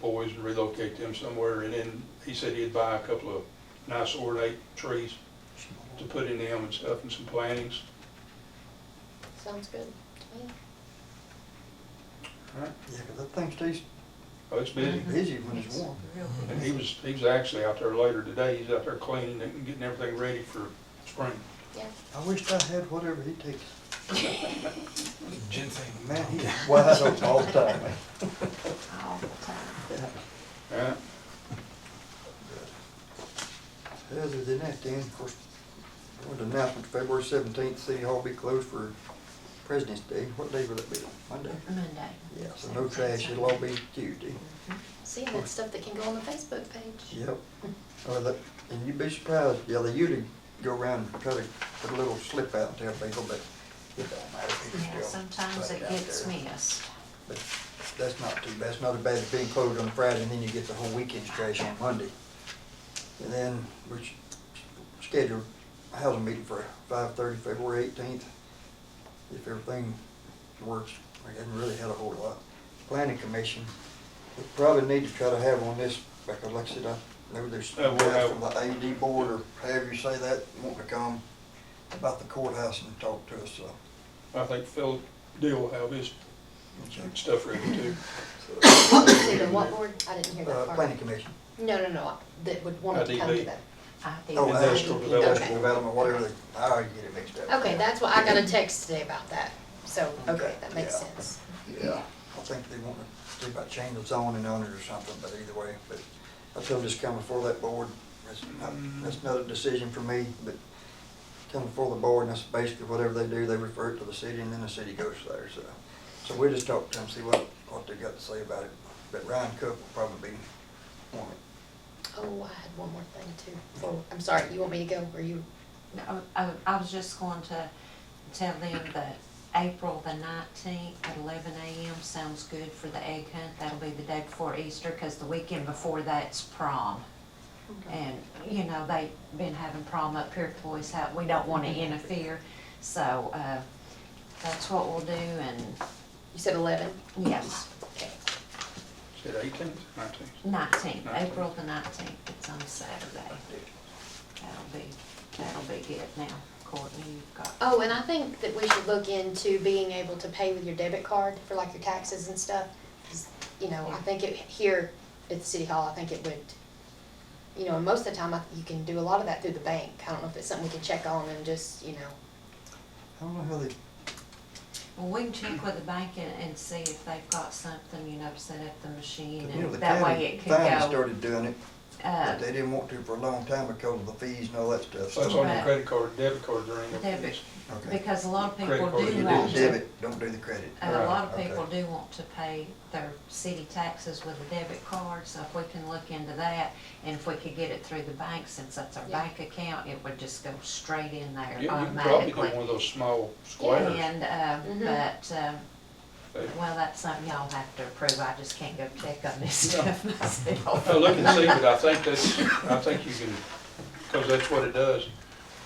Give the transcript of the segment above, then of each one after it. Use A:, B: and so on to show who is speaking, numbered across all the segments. A: boys and relocate them somewhere, and then he said he'd buy a couple of nice ornate trees to put in them and stuff, and some plantings.
B: Sounds good to me.
A: Right.
C: Yeah, 'cause that thing stays
A: Oh, it's busy.
C: busy when it's warm.
A: And he was, he was actually out there later today, he's out there cleaning and getting everything ready for spring.
B: Yeah.
C: I wished I had whatever he takes.
D: Ginseng.
C: Man, he's wide open all the time. man.
B: All the time.
A: Yeah,
C: Yeah. Other than that, then, of course, one announcement, February seventeenth, City Hall be closed for President's Day. What day will it be? Monday?
B: Monday.
C: Yeah, so no trash, it'll all be Tuesday.
B: See, and that's stuff that can go on the Facebook page.
C: Yep. Or the, and you'd be surprised, yeah, they usually go around and try to put a little slip out and tell people, but it don't matter. people
E: Yeah,
C: still
E: sometimes
C: put
E: it
C: out
E: gets
C: there.
E: missed.
C: But that's not too bad, it's not as bad as being closed on Friday, and then you get the whole weekend's trash on Monday. And then we're s- scheduled a housing meeting for five thirty, February eighteenth. If everything works, I haven't really had a whole lot. Planning commission, we probably need to try to have on this, because like I said, I know there's
A: Uh, we'll
C: guys
A: have-
C: from the AD board, or however you say that, want to come about the courthouse and talk to us, so.
A: I think Phil Deal will have his stuff ready too.
B: What was it, the what board? I didn't hear
C: Uh,
B: that part.
C: planning commission.
B: No, no, no, that would want to come
A: IDB.
B: to that.
E: I think-
C: Oh,
A: Industrial
C: uh,
A: development.
C: Industrial development, whatever, they- I already get it mixed up.
B: Okay, that's why I got a text today about that. So, okay, that makes
C: Yeah.
B: sense.
C: Yeah, I think they want to, they might change the zoning on it or something, but either way, but I told this come before that board, that's not, that's not a decision for me, but come before the board, and that's basically whatever they do, they refer it to the city, and then the city goes there, so. So we'll just talk to them, see what, what they got to say about it, but Ryan Cook will probably be on it.
B: Oh, I had one more thing too. Well, I'm sorry, you want me to go or you?
E: No, I, I was just going to tell them that April the nineteenth at eleven AM sounds good for the egg hunt. That'll be the day before Easter, cause the weekend before that's prom. And, you know, they've been having prom up here at Toys House. We don't wanna interfere, so, uh, that's what we'll do and,
B: You said eleven?
E: yes,
B: Okay.
A: Said eighteenth, nineteenth.
E: nineteenth,
A: Nineteenth.
E: April the nineteenth. It's on Saturday. That'll be, that'll be good now. Courtney, you've got.
B: Oh, and I think that we should look into being able to pay with your debit card for like your taxes and stuff. 'Cause, You know, I think it, here at the city hall, I think it would, you know, and most of the time, I- you can do a lot of that through the bank. I don't know if it's something we can check on and just, you know,
C: I don't know how they,
E: Well, we can check with the bank and, and see if they've got something, you know, to set up the machine
C: you know,
E: and
C: the
E: that way
C: county
E: it could
C: finally
E: go.
C: started doing it,
E: uh,
C: but they didn't want to for a long time because of the fees and all that stuff,
A: So
C: so.
A: it's on your
E: Right.
A: credit card, debit card, there ain't no
E: Debit.
A: fees.
C: Okay.
E: Because a lot of Uh,
A: Credit
E: people
A: card,
C: You do
E: do
A: you
E: want
C: the
E: to,
C: debit, don't do the credit.
E: and a lot of
C: Right, okay.
E: people do want to pay their city taxes with a debit card, so if we can look into that. And if we could get it through the bank, since that's our
B: Yeah.
E: bank account, it would just go straight in there
A: You you can probably do
E: automatically.
A: one of those small squares.
E: And, uh,
B: Mhm.
E: but, uh,
A: They-
E: well, that's something y'all have to approve, I just can't go check on this
A: No.
E: stuff myself.
A: No, look and see, but I think that's, I think you can, because that's what it does.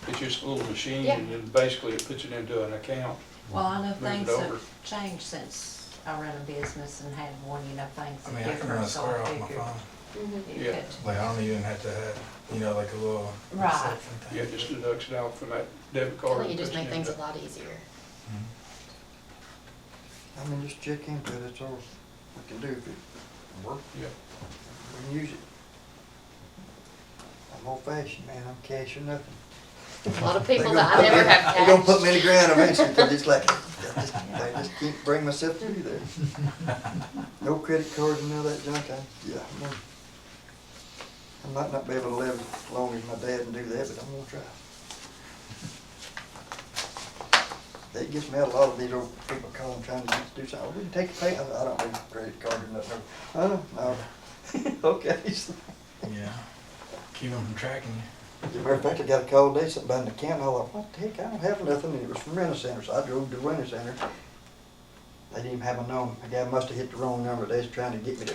A: It's just a little machine and then basically it puts it into an account.
E: Well, I know
A: Move it
E: things
A: over.
E: have changed since I ran a business and had one, you know, things
D: I
E: that
D: mean, I can run
E: differ,
D: a
E: so
D: square
E: I
D: off my
E: figured.
D: phone.
E: you
A: Yeah.
E: could-
D: Like, I don't even have to have, you know, like a little.
E: Right.
D: reception thing.
A: Yeah, it just deducts it out from that debit
B: I
A: card.
B: think it
A: and
B: just
A: puts
B: makes
A: it
B: things a
A: into-
B: lot easier.
D: Mm-hmm.
C: I mean, just check into it, that's all we can do if it works,
A: Yeah.
C: we can use it. I'm old fashioned, man, I'm cash or nothing.
B: A lot of
C: They
B: people
C: gonna
B: that I
C: put
B: never
C: me-
B: have
C: They gonna put
B: cashed.
C: me in the ground eventually, 'cause it's like, I just, I just can't bring myself through there. No credit cards and all that junk, I, yeah, I'm gonna- I might not be able to live as long as my dad and do that, but I'm gonna try. That gets me out a lot of these old people calling, trying to do something, we can take a pay, I I don't need a credit card or nothing, oh, no, okay.
D: Yeah. Keep them from tracking you.
C: As a matter of fact, I got a call today, something about the account, and I thought, what the heck, I don't have nothing, and it was from Renner Center, so I drove to Renner Center. They didn't even have a number, the guy must have hit the wrong number, they was trying to get me to,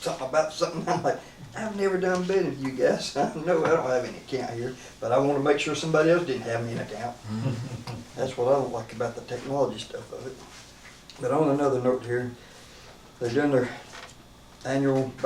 C: something about something, I'm like, I've never done business with you guys, I know I don't have any account here, but I wanna make sure somebody else didn't have me an account. That's what I don't like about the technology stuff of it. But on another note here, they're doing their annual